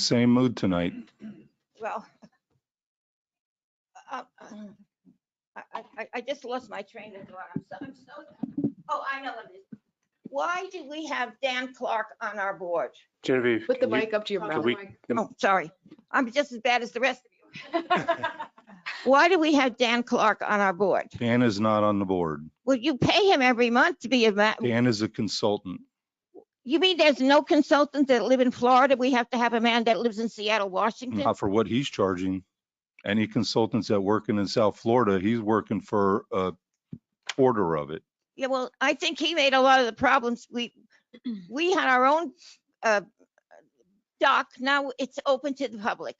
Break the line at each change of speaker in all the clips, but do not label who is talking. Same mood tonight.
Mm. Well, uh, um, I, I- I, I just lost my train of thought. I'm so, I'm so, oh, I know what it is. Why do we have Dan Clark on our board?
Genevieve,
Put the
can you-
mic up to your
can
mouth.
we-
Oh, sorry. I'm just as bad as the rest of you. Why do we have Dan Clark on our board?
Dan is not on the board.
Well, you pay him every month to be a, ma-
Dan is a consultant.
you mean there's no consultants that live in Florida? We have to have a man that lives in Seattle, Washington?
Not for what he's charging. Any consultants that working in South Florida, he's working for a quarter of it.
Yeah, well, I think he made a lot of the problems. We, we had our own uh, dock. Now it's open to the public.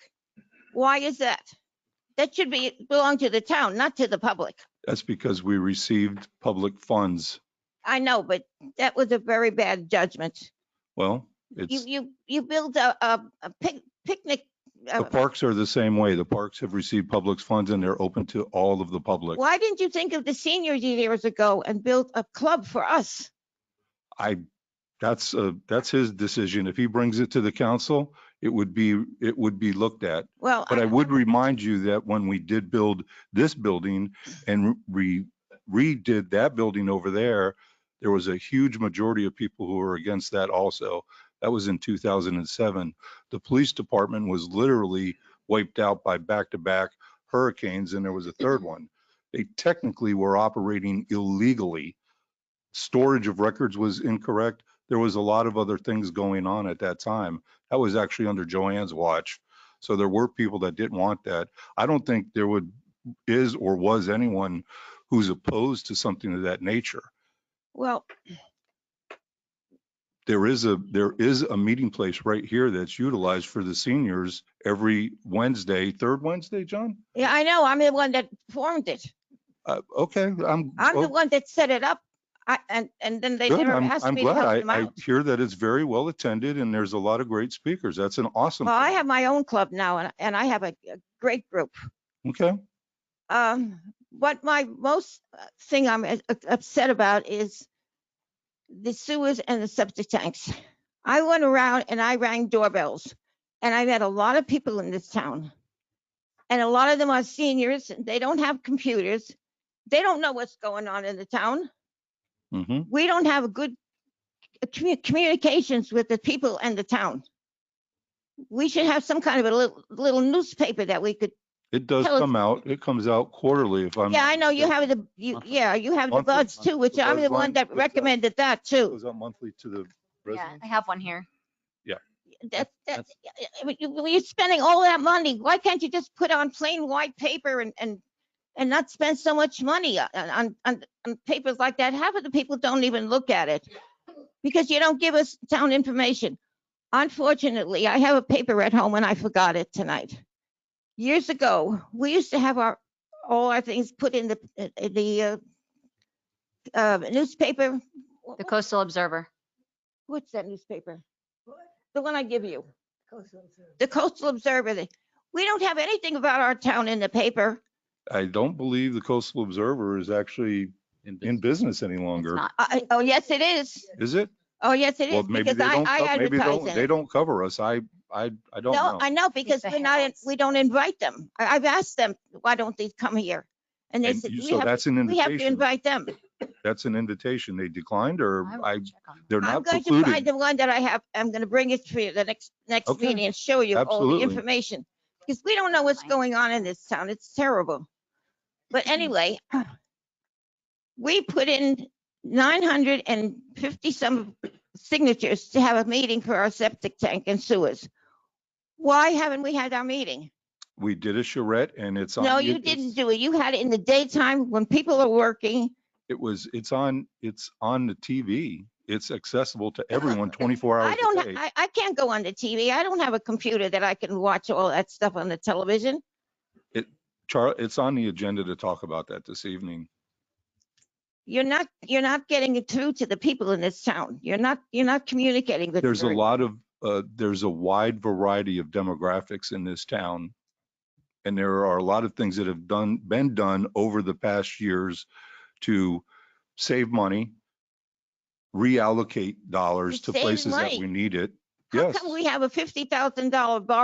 Why is that? That should be, belong to the town, not to the public.
That's because we received public funds.
I know, but that was a very bad judgment.
Well,
You,
it's,
you, you build a, a a pic- picnic. uh,
the parks are the same way. The parks have received public funds and they're open to all of the public.
Why didn't you think of the seniors years ago and build a club for us?
I, that's, uh, that's his decision. If he brings it to the council, it would be, it would be looked at.
Well,
But I would remind you that when we did build this building and re, redid that building over there, there was a huge majority of people who were against that also. That was in 2007. The police department was literally wiped out by back-to-back hurricanes, and there was a third one. They technically were operating illegally. Storage of records was incorrect. There was a lot of other things going on at that time. That was actually under Joanne's watch. So there were people that didn't want that. I don't think there would, is or was anyone who's opposed to something of that nature.
Well,
There is a, there is a meeting place right here that's utilized for the seniors every Wednesday, third Wednesday, John?
yeah, I know. I'm the one that formed it.
Uh, okay, I'm.
I'm
oh,
the one that set it up. I, and, and then they
good.
never
I'm-
asked
I'm
me to
glad.
help
I-
them
I
out.
hear that it's very well attended and there's a lot of great speakers. That's an awesome.
Well, I
thing.
have my own club now and, and I have a, a great group.
Okay,
Um, what my most uh, thing I'm uh, uh, upset about is the sewers and the septic tanks. I went around and I rang doorbells and I met a lot of people in this town. And a lot of them are seniors. They don't have computers. They don't know what's going on in the town.
mhm.
we don't have good uh, commu- communications with the people and the town. We should have some kind of a little, little newspaper that we could,
It does
Tell us-
come out. It comes out quarterly if I'm.
Um, yeah,
not
I know you
mistaken.
have the, you,
Monthly.
yeah, you have the
Monthly,
buds too, which
the
I'm
Buzz
the one uh,
line
that
goes out.
recommended that
It
too.
goes out monthly to the
Yeah,
residents.
I have one here.
That, that, I mean, you- you're spending all that money. Why can't you just put on plain white paper and, and, and not spend so much money on, on, on on papers like that? Half of the people don't even look at it because you don't give us town information. Unfortunately, I have a paper at home and I forgot it tonight. Years ago, we used to have our, all our things put in the, uh, the, uh, uh, newspaper. Wha-
The Coastal Observer.
What's that newspaper? The one I give you. The Coastal Observer. they- We don't have anything about our town in the paper.
I don't believe the Coastal Observer is actually in business any
It's
longer,
not.
I- I- Oh, yes, it is.
is it?
Oh, yes, it
Well,
is.
maybe
Because
they
I,
don't,
I
co- maybe they
advertise
don't,
in
they
it.
don't cover us. I, I, I don't
No,
know.
I know because
the
we're not, in-
Heralds.
we don't invite them. I- I've asked them, why don't they come here? And they
And
said,
you-
we
So
have,
that's an
we have to
invitation.
invite them.
That's an invitation. They declined or
I will
I,
check on
they're
I'm
not
going to find
precluded.
the one that I have. I'm going to bring it to you the next, next
Okay.
meeting and show you all the
Absolutely.
information. Because we don't know what's going on in this town. It's terrible. But anyway, we put in nine hundred and fifty some signatures to have a meeting for our septic tank and sewers. Why haven't we had our meeting?
We did a charrette and it's on.
No,
you-
you didn't do it. You had it in the daytime when people are working.
It was, it's on, it's on the TV. It's accessible to everyone 24 hours
I
a
don't,
day.
I, I can't go on the TV. I don't have a computer that I can watch all that stuff on the television.
Charlie, it's on the agenda to talk about that this evening.
You're not, you're not getting it through to the people in this town. You're not, you're not communicating with.
There's a
very-
lot of, uh, there's a wide variety of demographics in this town. And there are a lot of things that have done, been done over the past years to save money, reallocate dollars
It's
to
saving
places that
money.
we need it.
How
Yes.
come we have a fifty thousand dollar bar